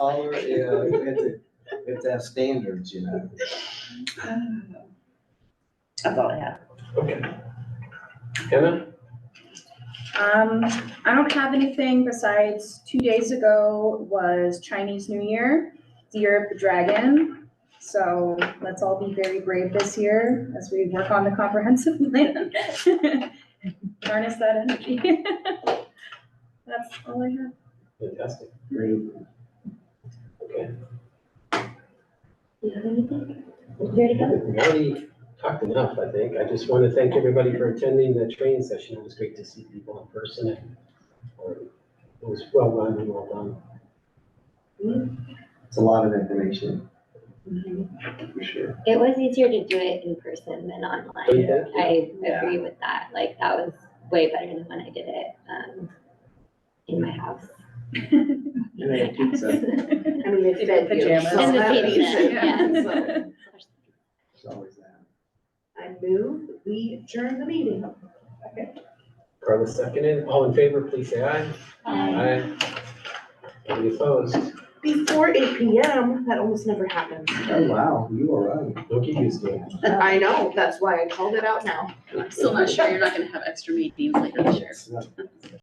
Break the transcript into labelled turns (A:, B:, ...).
A: dollar, yeah, we have to, we have to have standards, you know.
B: Uh,
C: That's all I have.
D: Okay. Kevin?
B: Um, I don't have anything besides two days ago was Chinese New Year, the year of the dragon. So let's all be very brave this year as we work on the comprehensive plan. Harness that energy. That's all I have.
D: Fantastic.
A: Great.
D: Okay.
C: You have anything? There you go.
D: We've already talked enough, I think. I just want to thank everybody for attending the training session. It was great to see people in person. and um, It was well run and well done.
A: It's a lot of information,
C: Mhm.
A: for sure.
E: It was easier to do it in person than online.
D: Thank you.
E: I
A: Yeah.
E: agree with that. Like, that was way better than when I did it, um, in my house.
A: And I had pizza,
F: I mean, it's been years.
C: Pajamas.
F: so
E: In the
F: that was-
E: baby
F: yeah,
E: bed,
F: so
A: it's always that.
F: I move, we adjourn the meeting.
D: Carla seconded. All in favor, please say aye.
F: um,
D: Aye. Any opposed?
F: Before eight P M, that almost never happens.
A: Oh, wow, you are right.
D: Don't get used to it.
F: I know, that's why I called it out now.
G: I'm still not sure, you're not gonna have extra meetings later this year.
A: It's not-